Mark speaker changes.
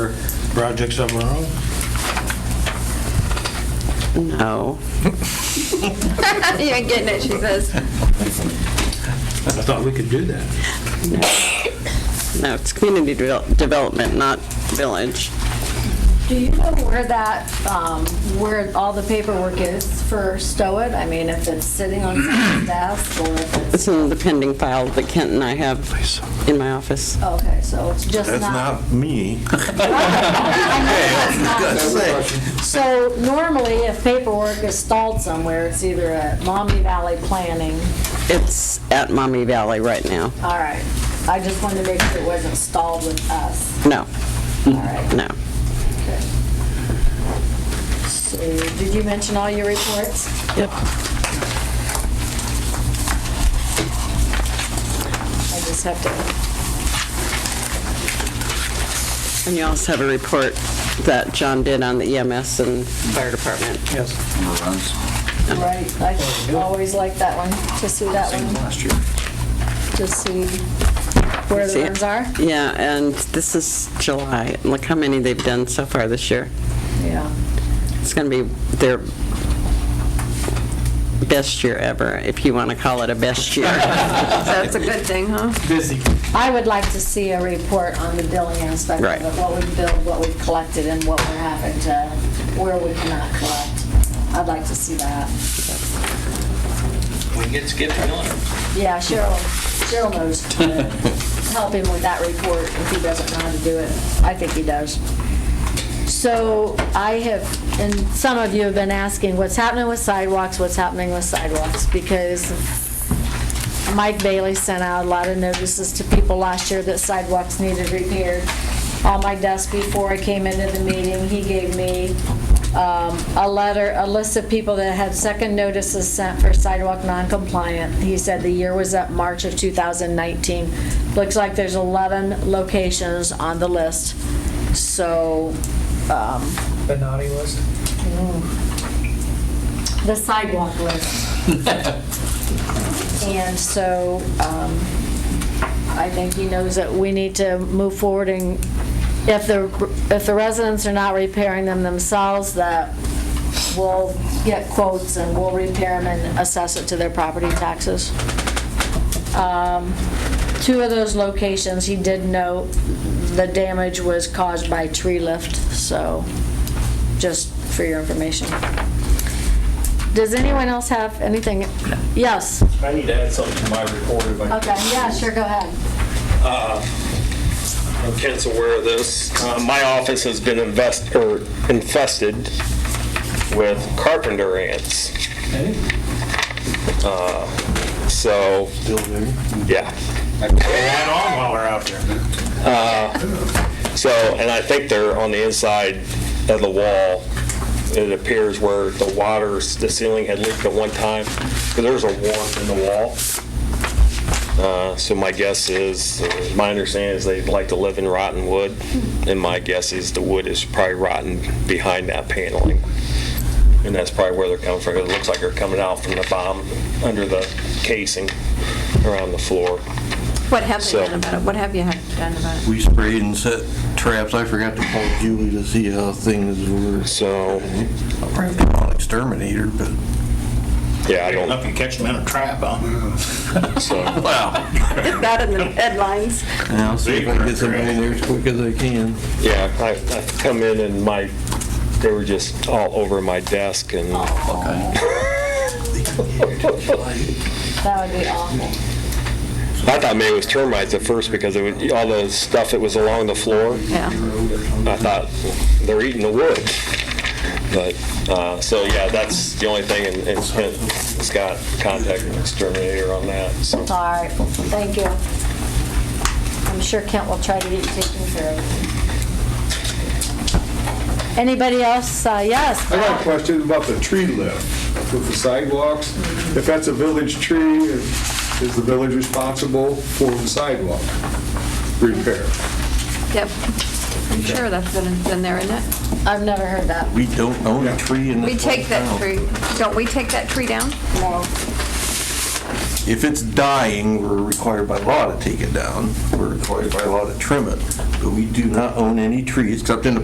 Speaker 1: projects of our own?
Speaker 2: No.
Speaker 3: Even getting it, she says.
Speaker 1: I thought we could do that.
Speaker 2: No, it's community devel- development, not village.
Speaker 4: Do you know where that, um, where all the paperwork is for Stow It? I mean, if it's sitting on someone's desk or if it's,
Speaker 2: It's in the pending file that Kent and I have in my office.
Speaker 4: okay, so it's just
Speaker 5: That's
Speaker 4: not.
Speaker 5: not me.
Speaker 4: So normally, if paperwork is stalled somewhere, it's either at Mommy Valley Planning.
Speaker 2: It's at Mommy Valley right now.
Speaker 4: All right. I just wanted to make sure it wasn't stalled with us.
Speaker 2: No,
Speaker 4: All right.
Speaker 2: no.
Speaker 4: okay. So, did you mention all your reports?
Speaker 2: Yep.
Speaker 4: I just have to
Speaker 2: And you also have a report that John did on the EMS and fire department.
Speaker 1: Yes.
Speaker 4: Right, I always like that one, to see that one. To see where the
Speaker 2: See it?
Speaker 4: runs are.
Speaker 2: Yeah, and this is July. Look how many they've done so far this year.
Speaker 4: Yeah.
Speaker 2: It's going to be their best year ever, if you want to call it a best year.
Speaker 3: So it's a good thing, huh?
Speaker 4: I would like to see a report on the billing aspect
Speaker 2: Right.
Speaker 4: of it, what we've billed, what we've collected, and what we're having to, where we cannot collect. I'd like to see that.
Speaker 6: We can get Skip to Miller.
Speaker 4: Yeah, Cheryl, Cheryl knows. to Help him with that report if he doesn't know how to do it. I think he does. So I have, and some of you have been asking, what's happening with sidewalks, what's happening with sidewalks? Because Mike Bailey sent out a lot of notices to people last year that sidewalks needed repaired. On my desk before I came into the meeting, he gave me um, a letter, a list of people that had second notices sent for sidewalk non-compliant. He said the year was up March of 2019. Looks like there's 11 locations on the list, so um,
Speaker 7: The naughty list?
Speaker 4: the sidewalk list. And so um, I think he knows that we need to move forward and if the, if the residents are not repairing them themselves, that we'll get quotes and we'll repair them and assess it to their property taxes. Um, Two of those locations, he did note the damage was caused by tree lift, so just for your information. Does anyone else have anything? Yes.
Speaker 8: I need to add something to my report if I
Speaker 4: Okay, yeah, sure, go ahead.
Speaker 8: can. Kent's aware of this. Uh, My office has been invest, or infested with carpenter ants. Uh, So,
Speaker 1: Still there?
Speaker 8: yeah.
Speaker 1: Add on while we're out there.
Speaker 8: So, and I think they're on the inside of the wall. It appears where the water, the ceiling had leaked at one time, because there's a warp in the wall. Uh, So my guess is, my understanding is they like to live in rotten wood, and my guess is the wood is probably rotten behind that paneling. And that's probably where they're coming from. It looks like they're coming out from the bottom, under the casing, around the floor.
Speaker 3: What have they
Speaker 8: So-
Speaker 3: done about it? What have you had done about it?
Speaker 5: We sprayed and set traps. I forgot to call Julie to see how things were.
Speaker 8: So,
Speaker 5: Probably on exterminator, but.
Speaker 8: yeah, I don't,
Speaker 1: Up and catch them in a trap, huh?
Speaker 8: so.
Speaker 3: Is that in the headlines?
Speaker 5: And I'll see if I can get somebody in there as quick as I can.
Speaker 8: Yeah, I, I come in and my, they were just all over my desk and,
Speaker 4: That would be awful.
Speaker 8: I thought maybe it was termites at first because it was, all the stuff that was along the floor,
Speaker 3: Yeah.
Speaker 8: I thought, they're eating the wood. But, uh, so yeah, that's the only thing and, and Kent has got contact an exterminator on that, so.
Speaker 4: All right, thank you. I'm sure Kent will try to get you taken care of. Anybody else? Uh, Yes.
Speaker 9: I got a question about the tree lift with the sidewalks. If that's a village tree, is the village responsible for the sidewalk repair?
Speaker 3: Yep. I'm sure that's been, been there, isn't it?
Speaker 4: I've never heard that.
Speaker 5: We don't own a tree in this
Speaker 3: We take
Speaker 5: whole
Speaker 3: that
Speaker 5: town.
Speaker 3: tree, don't we take that tree down?
Speaker 4: No.
Speaker 5: If it's dying, we're required by law to take it down. We're required by law to trim it. But we do not own any trees except in the